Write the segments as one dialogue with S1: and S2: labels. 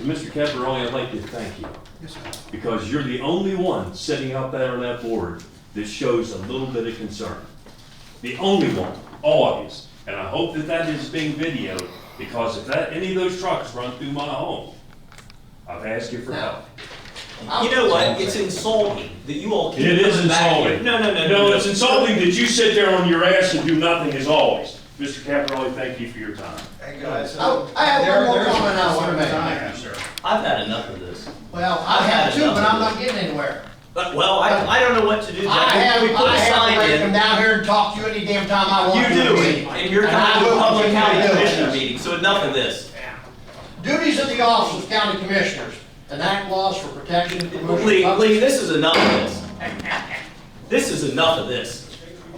S1: Mr. Caparelli, I'd like to thank you,
S2: Yes, sir.
S1: because you're the only one sitting out there on that board that shows a little bit of concern. The only one, all of yous. And I hope that that is being videoed, because if that, any of those trucks run through my home, I've asked you for help.
S3: You know what? It's insulting that you all keep
S1: It is
S3: coming back here.
S1: insulting.
S3: No, no, no, no.
S1: No, it's insulting that you sit there on your ass and do nothing as always. Mr. Caparelli, thank you for your time.
S2: Hey, guys.
S4: Oh, I have one
S2: There-
S4: more
S2: there's
S4: comment I
S2: some
S4: wanna make.
S2: time, sir.
S3: I've had enough of this.
S4: Well, I have two, but I'm not getting anywhere.
S3: But, well, I, I don't know what to do. Jack.
S4: I have,
S3: We put
S4: I
S3: a
S4: have a
S3: sign
S4: right
S3: in.
S4: to come down here and talk to you any damn time I
S3: You
S4: want.
S3: do, and you're
S4: And I
S3: coming to a
S4: will
S3: public
S4: continue
S3: county
S4: to do it.
S3: commissioner meeting, so enough of this.
S4: Duties of the office of county commissioners, enact laws for protection and promotion.
S3: Lee,
S4: of-
S3: Lee, this is enough of this. This is enough of this.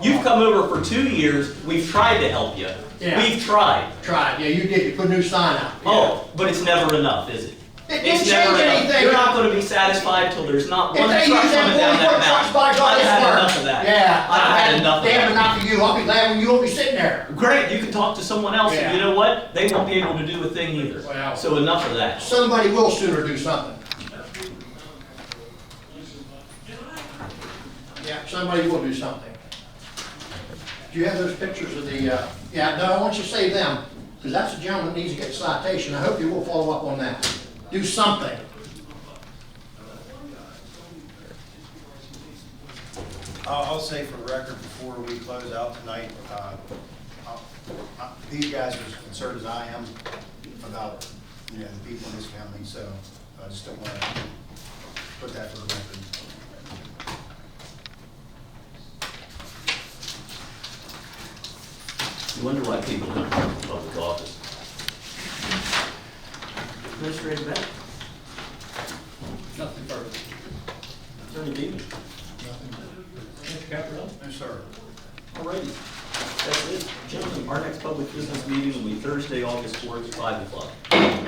S3: You've come over for two years, we've tried to help you.
S4: Yeah.
S3: We've tried.
S4: Tried, yeah, you did, you put a new sign out.
S3: Oh, but it's never enough, is it?
S4: It didn't
S3: It's never
S4: change
S3: enough.
S4: anything.
S3: You're not gonna be satisfied till there's not
S4: If
S3: one truck
S4: they use
S3: coming down
S4: that forty-foot
S3: that
S4: trucks, by
S3: mountain.
S4: God,
S3: I've
S4: it's worse.
S3: had enough of that.
S4: Yeah.
S3: I've had enough of
S4: Damn
S3: that.
S4: enough of you, I'll be glad when you won't be sitting there.
S3: Great, you can talk to someone else, and you
S4: Yeah.
S3: know what? They won't be able to do a thing either.
S4: Wow.
S3: So enough of that.
S4: Somebody will sooner do something. Yeah, somebody will do something. Do you have those pictures of the, uh, yeah, no, I want you to save them, because that's a gentleman that needs to get a citation. I hope you will follow up on that. Do something.
S2: I'll, I'll say for the record, before we close out tonight, uh, I'll- I- these guys are as concerned as I am about, you know, the people in this county, so I just don't want to put that for the record.
S3: You wonder why people don't come to public office. Administrator Beck? Nothing further. Attorney Beaton? Mr. Caparella?
S2: No, sir.
S3: Alrighty, that's it. Gentlemen, our next public business meeting will be Thursday, August fourth, five o'clock.